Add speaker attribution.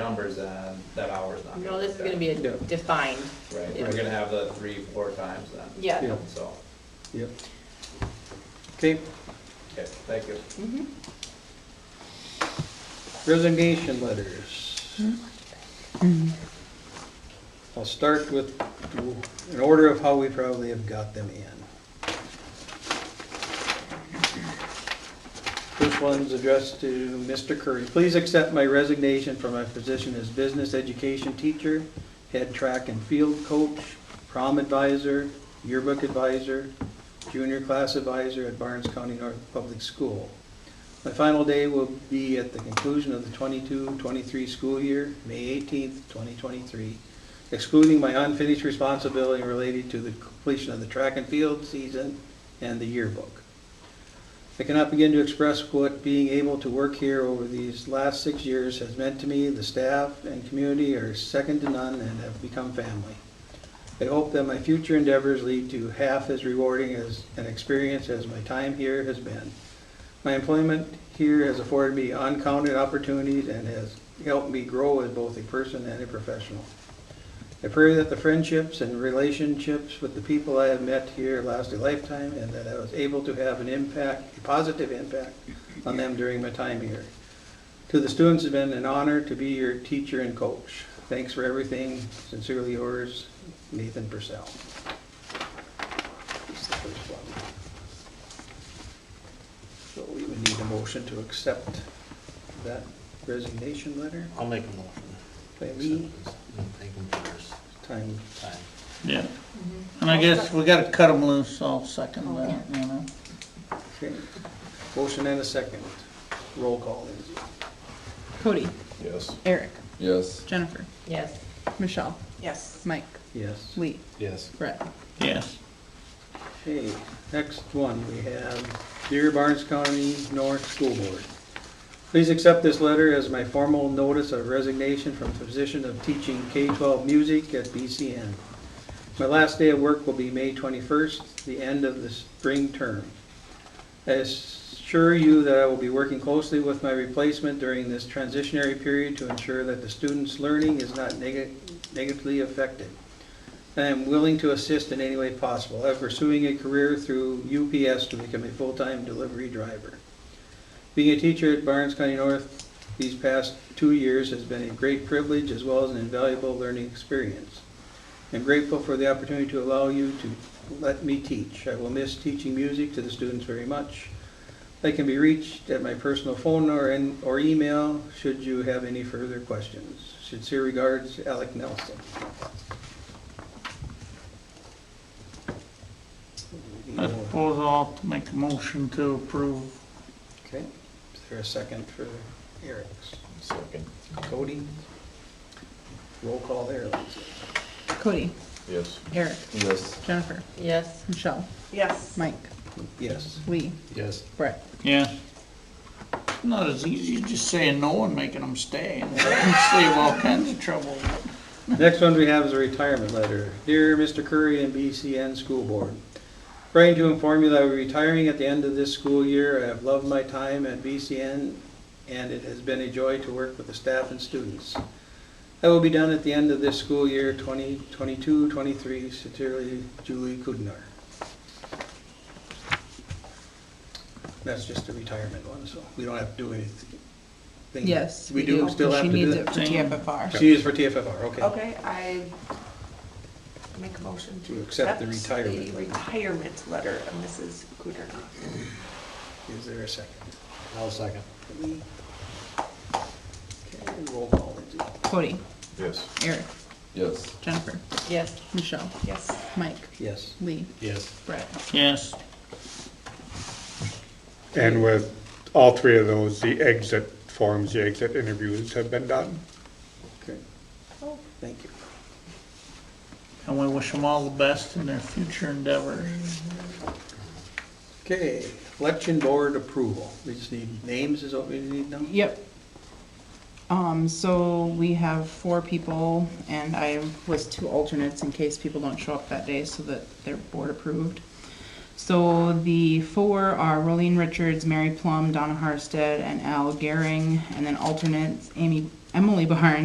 Speaker 1: numbers, then that hour's not gonna
Speaker 2: No, this is
Speaker 1: work
Speaker 2: gonna be a
Speaker 3: Yeah.
Speaker 2: defined,
Speaker 1: out. Right, we're gonna have the three, four times then,
Speaker 2: yeah.
Speaker 3: Yeah.
Speaker 1: so,
Speaker 3: Yep. Okay,
Speaker 1: okay, thank you.
Speaker 2: Mhm.
Speaker 3: resignation letters. I'll start with an order of how we probably have got them in. First one's addressed to Mr. Curry. Please accept my resignation from my position as business education teacher, head track and field coach, prom advisor, yearbook advisor, junior class advisor at Barnes County North Public School. My final day will be at the conclusion of the 22-23 school year, May eighteenth, twenty twenty-three, excluding my unfinished responsibility related to the completion of the track and field season and the yearbook. I cannot begin to express what being able to work here over these last six years has meant to me. The staff and community are second to none and have become family. I hope that my future endeavors lead to half as rewarding as an experience as my time here has been. My employment here has afforded me uncounted opportunities and has helped me grow as both a person and a professional. I pray that the friendships and relationships with the people I have met here last a lifetime and that I was able to have an impact, a positive impact on them during my time here. To the students, it's been an honor to be your teacher and coach. Thanks for everything. Sincerely yours, Nathan Purcell. That's the first one. So we would need a motion to accept that resignation letter.
Speaker 4: I'll make a motion.
Speaker 3: By me,
Speaker 4: Thank him for his
Speaker 3: time,
Speaker 4: time.
Speaker 5: Yeah, and I guess we gotta cut them loose, I'll second
Speaker 2: Oh,
Speaker 5: that, you know.
Speaker 3: okay. Motion and a second. Roll call, Lindsay.
Speaker 6: Cody,
Speaker 1: Yes.
Speaker 6: Eric,
Speaker 7: Yes.
Speaker 6: Jennifer,
Speaker 2: Yes.
Speaker 6: Michelle,
Speaker 2: Yes.
Speaker 6: Mike,
Speaker 3: Yes.
Speaker 6: Lee,
Speaker 4: Yes.
Speaker 6: Brett.
Speaker 5: Yes,
Speaker 3: Okay, next one, we have Dear Barnes County North School Board. Please accept this letter as my formal notice of resignation from position of teaching K-12 music at BCN. My last day of work will be May 21st, the end of the spring term. I assure you that I will be working closely with my replacement during this transitionary period to ensure that the student's learning is not nega- negatively affected. I am willing to assist in any way possible. I'm pursuing a career through UPS to become a full-time delivery driver. Being a teacher at Barnes County North these past two years has been a great privilege as well as an invaluable learning experience. I'm grateful for the opportunity to allow you to let me teach. I will miss teaching music to the students very much. I can be reached at my personal phone or, in- or email should you have any further questions. Sincere regards, Alec Nelson.
Speaker 5: I suppose I'll make a motion to approve.
Speaker 3: Okay, is there a second for Eric's? Second. Cody? Roll call there, Lindsay.
Speaker 6: Cody. Yes. Eric,
Speaker 7: Yes.
Speaker 6: Jennifer,
Speaker 2: Yes.
Speaker 6: Michelle,
Speaker 2: Yes.
Speaker 6: Mike,
Speaker 3: Yes.
Speaker 6: Lee,
Speaker 4: Yes.
Speaker 6: Brett.
Speaker 5: Yes. Not as easy as just saying no and making them stay, and save all kinds of trouble.
Speaker 3: Next one we have is a retirement letter. Dear Mr. Curry and BCN School Board, Writing to inform you that I'm retiring at the end of this school year. I have loved my time at BCN, and it has been a joy to work with the staff and students. I will be done at the end of this school year, 2022-23. Sincerely, Julie Kudnar. That's just a retirement one, so we don't have to do anything.
Speaker 6: Yes.
Speaker 3: We do still have to
Speaker 6: She
Speaker 3: do
Speaker 6: needs it
Speaker 3: that.
Speaker 6: for TFFR.
Speaker 3: She is for TFFR, okay.
Speaker 8: Okay, I make a motion to.
Speaker 3: To accept the retirement
Speaker 8: The
Speaker 3: letter.
Speaker 8: retirement letter of Mrs. Gudernoff.
Speaker 3: Is there a second?
Speaker 4: I'll second.
Speaker 3: Okay, roll call, Lindsay.
Speaker 6: Cody,
Speaker 7: Yes.
Speaker 6: Eric,
Speaker 7: Yes.
Speaker 6: Jennifer,
Speaker 2: Yes.
Speaker 6: Michelle,
Speaker 8: Yes.
Speaker 6: Mike,
Speaker 3: Yes.
Speaker 6: Lee,
Speaker 4: Yes.
Speaker 6: Brett.
Speaker 5: Yes,
Speaker 9: And with all three of those, the exit forms, the exit interviews have been done.
Speaker 3: Okay. Thank you.
Speaker 5: and we wish them all the best in their future endeavors.
Speaker 3: Okay, election board approval. We just need names is what we need now?
Speaker 6: Yep. Um, so we have four people and I was two alternates in case people don't show up that day so that they're board approved. So the four are Rolene Richards, Mary Plum, Donna Harstead, and Al Gehring, and then alternates Amy, Emily Barnes.